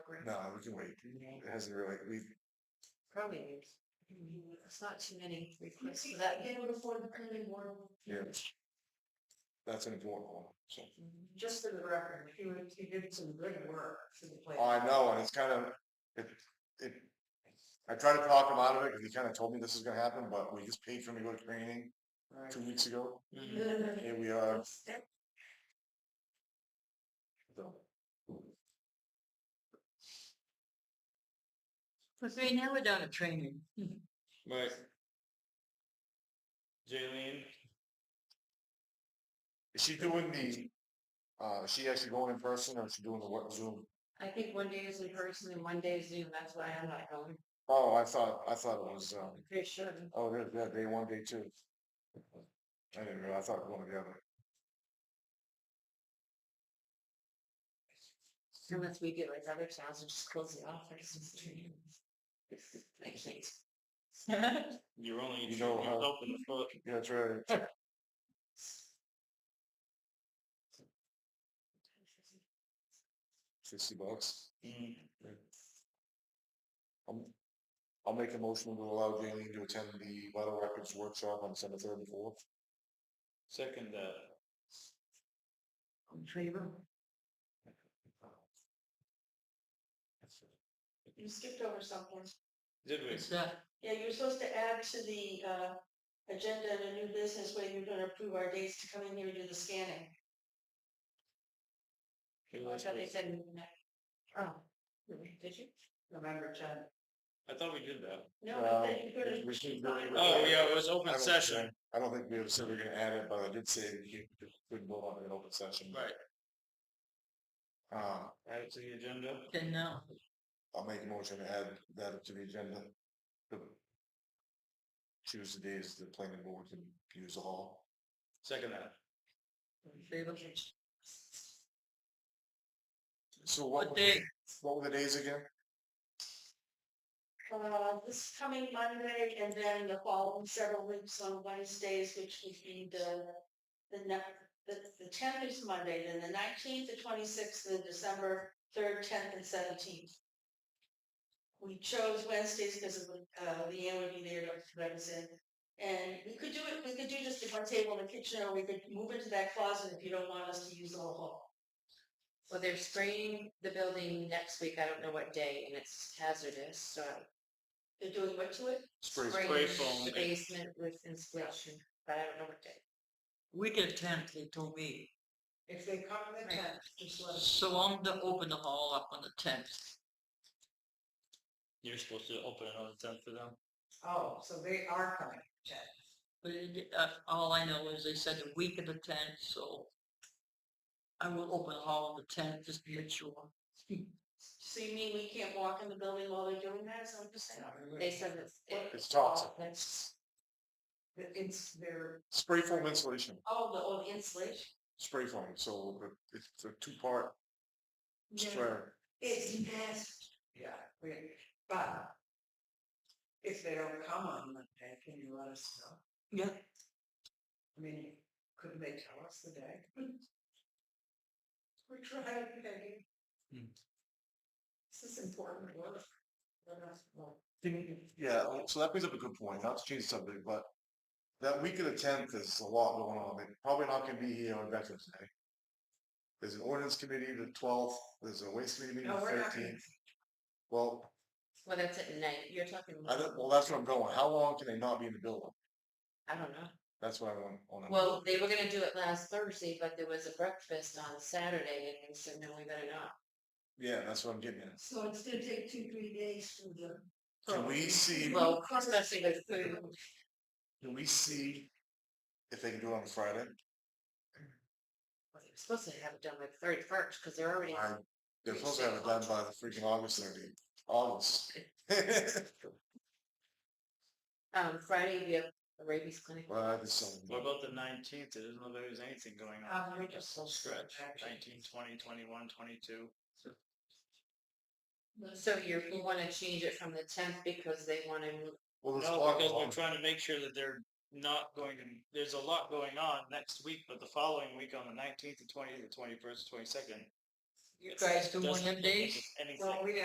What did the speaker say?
No, we can wait. It hasn't really, we, Probably. It's not too many requests for that. They would afford the planning board, yeah. That's an important one. just for the record, he would, he did some good work for the place. Oh, I know, and it's kind of, it, it, I tried to talk him out of it, because he kind of told me this is gonna happen, but we just paid for me to go to training Right. two weeks ago. Mhm. Here we uh, are. Because we never done a training. Right. Jaylene, Is she doing the, uh, is she actually going in person, or is she doing the what, Zoom? I think one day is in person and one day is Zoom. That's why I'm not going. Oh, I thought, I thought it was, um, I'm pretty sure. oh, there's that day one, day two. I didn't realize, I thought it was going together. Unless we get like other towns and just close the office. I can't. you're only You know shooting how- yourself in the foot. Yeah, that's right. Fifty bucks. Mm. Um, I'll make a motion to allow Jaylene to attend the vital records workshop on December third and fourth. Second, uh, In favor? You skipped over something. did we? Yeah, you were supposed to add to the, uh, agenda in a new business where you're gonna approve our dates to come in here and do the scanning. Who I was thought they it? said. Oh, did you? November tenth. I thought we did that. No, Well, I think you're we should really- gonna. Oh, yeah, it was I open don't session. think- I don't think we have said we're gonna add it, but I did say that you could vote on it in open session. Right, Uh, add it to the agenda. Then no. I'll make a motion to add that to the agenda. to Choose the days the planning board can use the hall. Second that. Favor? So what, were the- what were the days again? Uh, this coming Monday and then the following several weeks on Wednesdays, which would be the, the ne- the, the tenth is Monday, then the nineteenth, the twenty-sixth, the December third, tenth and seventeenth. We chose Wednesdays because of, uh, Leanne would be there to represent. And we could do it, we could do just the one table in the kitchen or we could move into that closet if you don't want us to use the whole hall. Well, they're spraying the building next week. I don't know what day and it's hazardous, so. They're doing what to it? Spray spray spraying foam. The basement with insulation, but I don't know what day. We get a tent, they told me. If they come in Right. tenth, just let So I'm gonna open the hall up on the tenth. You're supposed to open another tent for them. Oh, so they are coming. But it, uh, all I know is they said the week of the tenth, so I will open the hall on the tenth just to make sure. So you mean we can't walk in the building while they're doing that, is that what you're saying? They said it's. it- It's toxic. all- That's It's their. Spray foam insulation, Oh, the, oh, the insulation? spray foam, so the- it's a two-part spray. It's nasty. Yeah, we- but if they don't come on Monday, can you let us know? Yeah. I mean, couldn't they tell us the day? We tried, Peggy. Hmm. This is important work. Let us know. Thing- Yeah, well, so that brings up a good point, not to change the subject, but that week of the tenth is a lot going on, they probably not gonna be here on Veterans Day. There's an ordinance committee the twelfth, there's a waste committee meeting No, the we're not gonna- thirteenth. Well, Well, that's at night. You're talking. I don't, well, that's where I'm going, how long can they not be in the building? I don't know. That's what I want, want to. Well, they were gonna do it last Thursday, but there was a breakfast on Saturday and they said, no, we better not. yeah, that's what I'm getting at. So it's gonna take two, three days for the. Can we see, Well, especially with food. can we see if they can do it on Friday? Well, They're supposed to have it done by the thirty first, because they're already. I- They're supposed to have it done by the freaking August thirty, August. Um, Friday, we have a rabies clinic. Well, there's some. What about the nineteenth? It doesn't look like there's anything going on. Uh, Um, we That's a Stretch, nineteen, twenty, twenty-one, twenty-two. So you're, you wanna change it from the tenth because they wanna, move- Well, there's a No, lot because going we're on. trying to make sure that they're not going to, there's a lot going on next week, but the following week on the nineteenth, the twentieth, the twenty-first, twenty-second. You guys do one of them days? Anything. Well, we